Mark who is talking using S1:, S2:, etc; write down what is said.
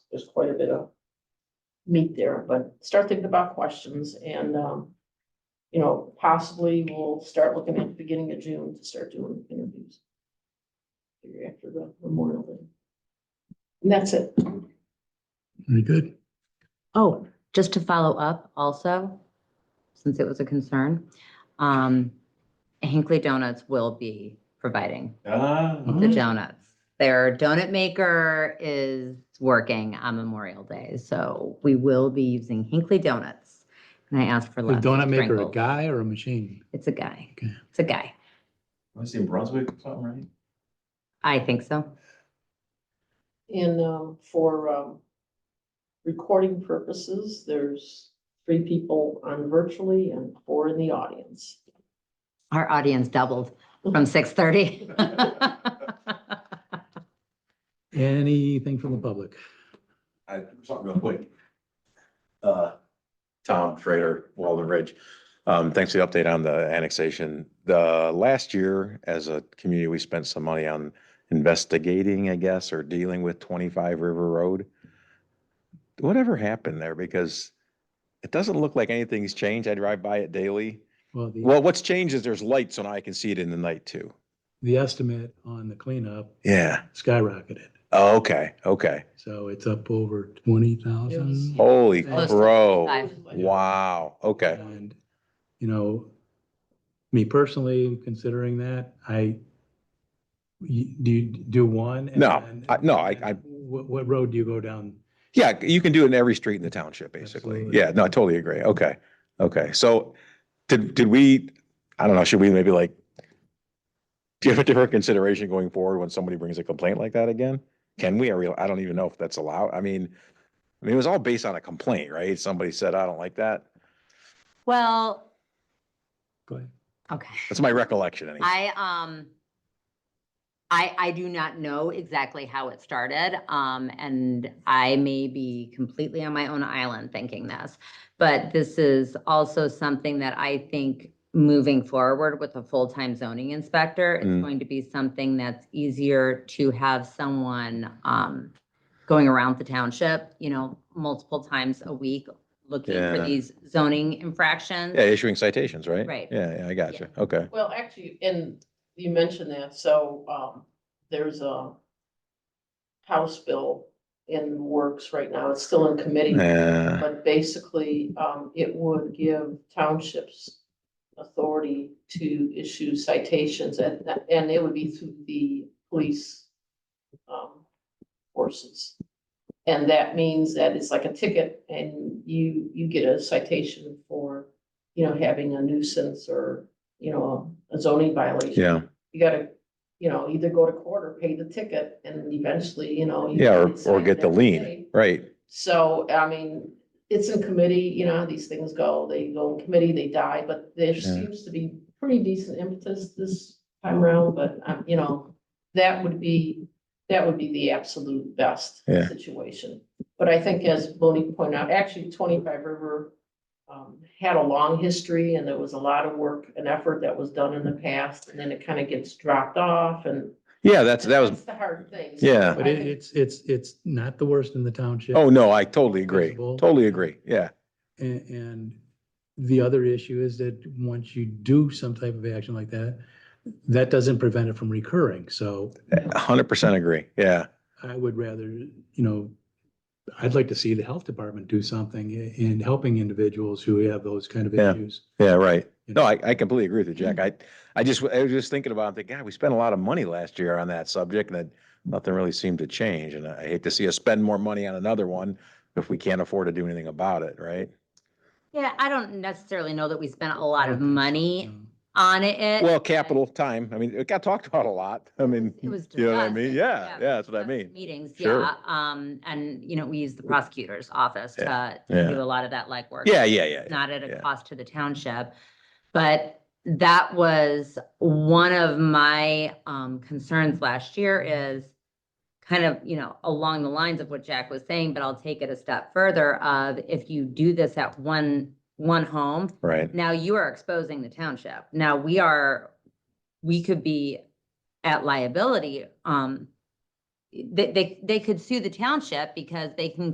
S1: there's quite a bit of meat there, but start thinking about questions and, um, you know, possibly we'll start looking at the beginning of June to start doing interviews. After the Memorial Day. And that's it.
S2: Very good.
S3: Oh, just to follow up also, since it was a concern, um, Hinkley Donuts will be providing
S4: Ah,
S3: the
S2: Mhm.
S3: donuts. Their donut maker is working on Memorial Day, so we will be using Hinkley Donuts. And I asked for
S2: The
S3: less.
S2: donut maker, a
S3: sprinkles.
S2: guy or a machine?
S3: It's a guy.
S2: Okay.
S3: It's a guy.
S4: was in Brunswick or something, right?
S3: I think so.
S1: And um, for um, recording purposes, there's three people on virtually and four in the audience.
S3: Our audience doubled from six thirty.
S2: Anything from the public?
S4: I, something real quick. Uh, Tom Schrader, Walden Ridge. Um, thanks for the update on the annexation. The last year, as a community, we spent some money on investigating, I guess, or dealing with twenty-five River Road. Whatever happened there? Because it doesn't look like anything's changed. I drive by it daily.
S2: Well, the,
S4: Well, what's changed is there's lights and I can see it in the night too.
S2: the estimate on the cleanup
S4: Yeah.
S2: skyrocketed.
S4: Oh, Okay, okay.
S2: So it's up over twenty thousand.
S4: Holy
S2: Close
S3: to
S4: crow.
S3: Five.
S4: Wow, okay.
S2: And, you know, me personally, considering that, I, you- do you do one? and
S4: No,
S2: then-
S4: I- no, I- I-
S2: What, what road do you go down?
S4: Yeah, you can do it in every street in the township, basically.
S2: Absolutely.
S4: Yeah, no, I totally agree. Okay, okay. So did, did we, I don't know, should we maybe like, do you have a different consideration going forward when somebody brings a complaint like that again? Can we, I real, I don't even know if that's allowed. I mean, I mean, it was all based on a complaint, right? Somebody said, I don't like that.
S3: Well,
S2: Go ahead.
S3: okay.
S4: That's my recollection anyway.
S3: I, um, I, I do not know exactly how it started, um, and I may be completely on my own island thinking this. But this is also something that I think moving forward with a full-time zoning inspector, it's
S4: Mm.
S3: going to be something that's easier to have someone, um, going around the township, you know, multiple times a week, looking for
S4: Yeah.
S3: these zoning infractions.
S4: Yeah, issuing citations, right?
S3: Right.
S4: Yeah, yeah, I got you. Okay.
S1: Well, actually, and you mentioned that, so, um, there's a House bill in works right now. It's still in committee.
S4: Yeah,
S1: But basically, um, it would give townships authority to issue citations and, and it would be through the police um, forces. And that means that it's like a ticket and you, you get a citation for, you know, having a nuisance or, you know, a zoning violation.
S4: yeah,
S1: You gotta, you know, either go to court or pay the ticket and eventually, you know. you
S4: yeah, or,
S1: get
S4: or get
S1: cited
S4: the
S1: every day.
S4: lien, right?
S1: So, I mean, it's in committee, you know how these things go, they go in committee, they die, but there
S4: Yeah.
S1: seems to be pretty decent impetus this time around, but, um, you know, that would be, that would be the absolute best
S4: Yeah.
S1: situation. But I think as Bonnie pointed out, actually twenty-five River um, had a long history and there was a lot of work and effort that was done in the past, and then it kind of gets dropped off and
S4: Yeah, that's, that was,
S1: the hard thing. So
S4: yeah.
S2: But
S1: I
S2: it,
S1: think-
S2: it's, it's, it's not the worst in the township.
S4: Oh, no, I totally agree.
S2: Visible.
S4: Totally agree. Yeah.
S2: And, and the other issue is that once you do some type of action like that, that doesn't prevent it from recurring. So
S4: a hundred percent agree. Yeah.
S2: I would rather, you know, I'd like to see the health department do something i- in helping individuals who have those kind of
S4: Yeah.
S2: issues.
S4: Yeah. Right.
S2: you
S4: No,
S2: know.
S4: I, I completely agree with you, Jack. I, I just, I was just thinking about, it, thinking, God, we spent a lot of money last year on that subject and that nothing really seemed to change. And I hate to see us spend more money on another one if we can't afford to do anything about it. Right.
S3: Yeah, I don't necessarily know that we spent a lot of
S2: Okay,
S3: money
S2: Um,
S3: on it.
S4: Well, capital time. I mean, it got talked about a lot. I mean,
S3: It was
S4: you know what I
S3: discussed,
S4: mean?
S3: and-
S4: Yeah.
S3: we
S4: Yeah. That's what I
S3: discussed
S4: mean.
S3: Meetings,
S4: Sure.
S3: yeah, um, and, you know, we use the prosecutor's office to,
S4: yeah.
S3: to do a lot of that legwork.
S4: Yeah. Yeah. Yeah. yeah.
S3: Not at a
S4: yeah.
S3: cost to the township, but that was one of my, um, concerns last year is kind of, you know, along the lines of what Jack was saying, but I'll take it a step further of if you do this at one, one home,
S4: Right.
S3: now you are exposing the township. Now we are, we could be at liability, um, they, they, they could sue the township because they can